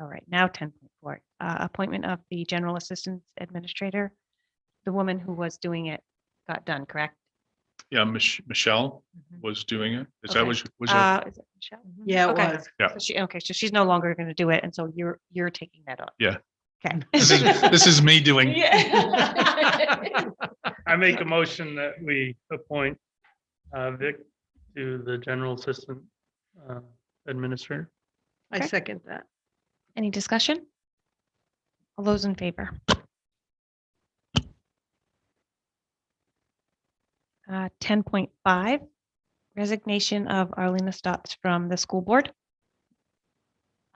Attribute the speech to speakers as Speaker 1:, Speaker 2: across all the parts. Speaker 1: All right, now ten point four, uh, appointment of the general assistance administrator. The woman who was doing it got done, correct?
Speaker 2: Yeah, Mich- Michelle
Speaker 1: Mhm.
Speaker 2: was doing it. Is that
Speaker 1: Okay.
Speaker 2: was, was that?
Speaker 1: Uh, is it Michelle?
Speaker 3: Yeah, it
Speaker 1: Okay.
Speaker 3: was.
Speaker 2: Yeah.
Speaker 1: So she, okay, so she's no longer going to do it, and so you're, you're taking that on.
Speaker 2: Yeah.
Speaker 1: Okay.
Speaker 2: This is- This is me doing,
Speaker 1: Yeah.
Speaker 4: I make a motion that we appoint uh, Vic to the general assistant uh, administrator.
Speaker 3: I
Speaker 1: Okay.
Speaker 3: second that.
Speaker 1: Any discussion? All those in favor? Uh, ten point five, resignation of Arlena Stotts from the school board.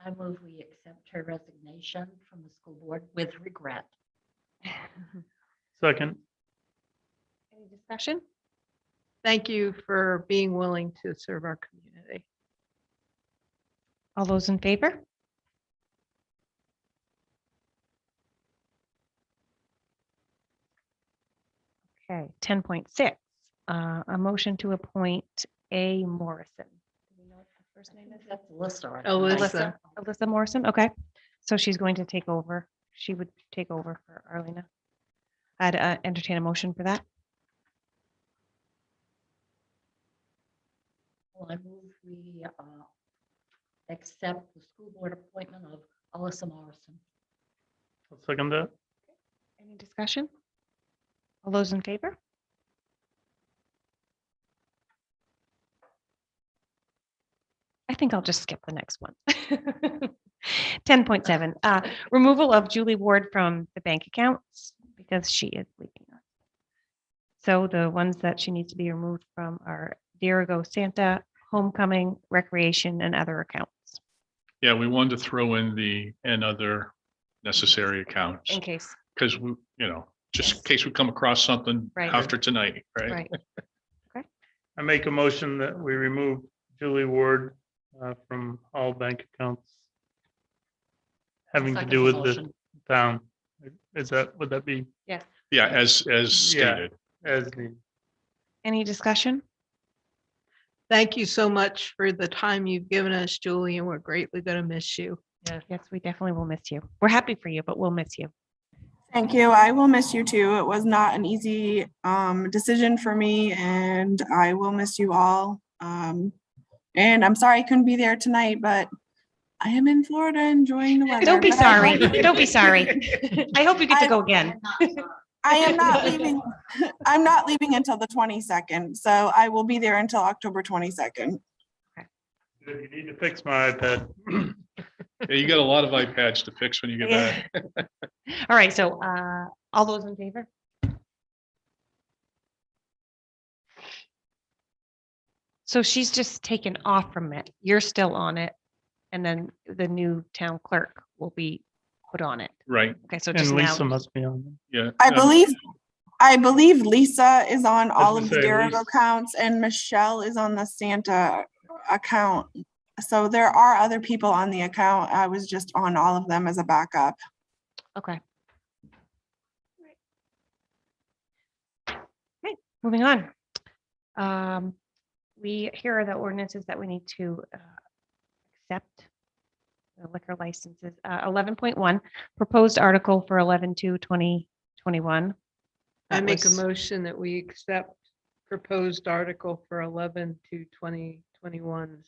Speaker 5: I move we accept her resignation from the school board with regret.
Speaker 4: Second,
Speaker 1: Any discussion?
Speaker 3: Thank you for being willing to serve our community.
Speaker 1: All those in favor? Okay, ten point six, uh, a motion to appoint A Morrison. Do we know what her first
Speaker 5: I
Speaker 1: name
Speaker 5: think
Speaker 1: is?
Speaker 5: That's Alyssa. right?
Speaker 1: Oh,
Speaker 3: Alyssa.
Speaker 1: Alyssa Morrison, okay. So she's going to take over. She would take over for Arlena. I'd uh, entertain a motion for that.
Speaker 5: Well, I move we uh, accept the school board appointment of Alyssa Morrison.
Speaker 4: I'll second that.
Speaker 1: Any discussion? All those in favor? I think I'll just skip the next one. Ten point seven, uh, removal of Julie Ward from the bank accounts because she is leaving. us. So the ones that she needs to be removed from are Dirigo Santa, Homecoming, Recreation, and other accounts
Speaker 2: yeah, we wanted to throw in the, and other necessary accounts.
Speaker 1: in case,
Speaker 2: Because we, you know, just in
Speaker 1: Yes.
Speaker 2: case we come across something
Speaker 1: Right.
Speaker 2: after tonight, right?
Speaker 1: right?
Speaker 4: I make a motion that we remove Julie Ward uh, from all bank accounts having to
Speaker 5: Second
Speaker 4: do with the
Speaker 5: motion.
Speaker 4: town. Is that, would that be
Speaker 2: Yeah, as, as
Speaker 4: Yeah.
Speaker 2: stated.
Speaker 4: as needed?
Speaker 1: Any discussion?
Speaker 3: Thank you so much for the time you've given us, Julie, and we're greatly going to miss you.
Speaker 1: Yes, we definitely will miss you. We're happy for you, but we'll miss you.
Speaker 6: Thank you. I will miss you too. It was not an easy um, decision for me, and I will miss you all. Um, and I'm sorry I couldn't be there tonight, but I am in Florida enjoying the weather.
Speaker 1: Don't be
Speaker 6: but I
Speaker 1: sorry.
Speaker 6: will-
Speaker 1: Don't be sorry. I hope you get to
Speaker 6: I-
Speaker 1: go again.
Speaker 6: I am not leaving. I'm not leaving until the 22nd, so I will be there until October 22nd.
Speaker 4: You need to fix my iPad.
Speaker 2: Yeah, You got a lot of iPads to fix when you get back.
Speaker 1: All right, so uh, all those in favor? So she's just taken off from it. You're still on it. And then the new town clerk will be put on it.
Speaker 2: Right,
Speaker 1: Okay, so
Speaker 4: And
Speaker 1: just
Speaker 4: Lisa
Speaker 1: now,
Speaker 4: must be on.
Speaker 2: yeah.
Speaker 6: I
Speaker 2: um,
Speaker 6: believe, I believe Lisa is on all
Speaker 4: gonna
Speaker 6: of the
Speaker 4: say,
Speaker 6: Derigo
Speaker 4: Lisa-
Speaker 6: accounts and Michelle is on the Santa account. So there are other people on the account. I was just on all of them as a backup.
Speaker 1: okay. Okay, moving on. Um, We, here are the ordinances that we need to uh, accept. The liquor licenses, uh, eleven point one, proposed article for 11-2-2021.
Speaker 3: I
Speaker 1: That
Speaker 3: make a
Speaker 1: was-
Speaker 3: motion that we accept proposed article for 11 to 2021's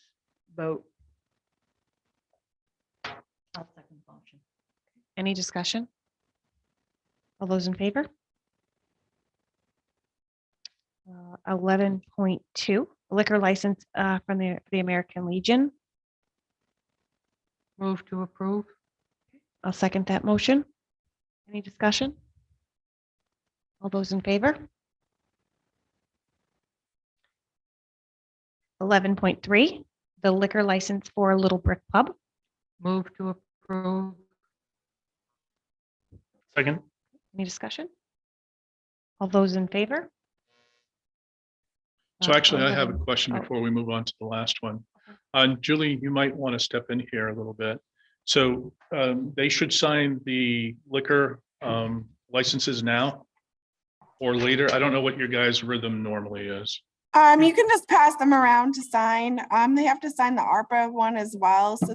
Speaker 3: vote.
Speaker 5: I'll second the motion.
Speaker 1: Any discussion? All those in favor? Uh, Eleven point two, liquor license uh, from the, the American Legion.
Speaker 3: Move to approve.
Speaker 1: I'll second that motion. Any discussion? All those in favor? Eleven point three, the liquor license for Little Brick Pub.
Speaker 3: Move to approve.
Speaker 4: Second,
Speaker 1: Any discussion? All those in favor?
Speaker 2: So
Speaker 1: Uh,
Speaker 2: actually, I have a
Speaker 1: 11
Speaker 2: question
Speaker 1: oh.
Speaker 2: before we move on to the last one. Uh, Julie, you might want to step in here a little bit. So um, they should sign the liquor um, licenses now or later. I don't know what your guys' rhythm normally is.
Speaker 6: Um, you can just pass them around to sign. Um, they have to sign the ARPA one as well, so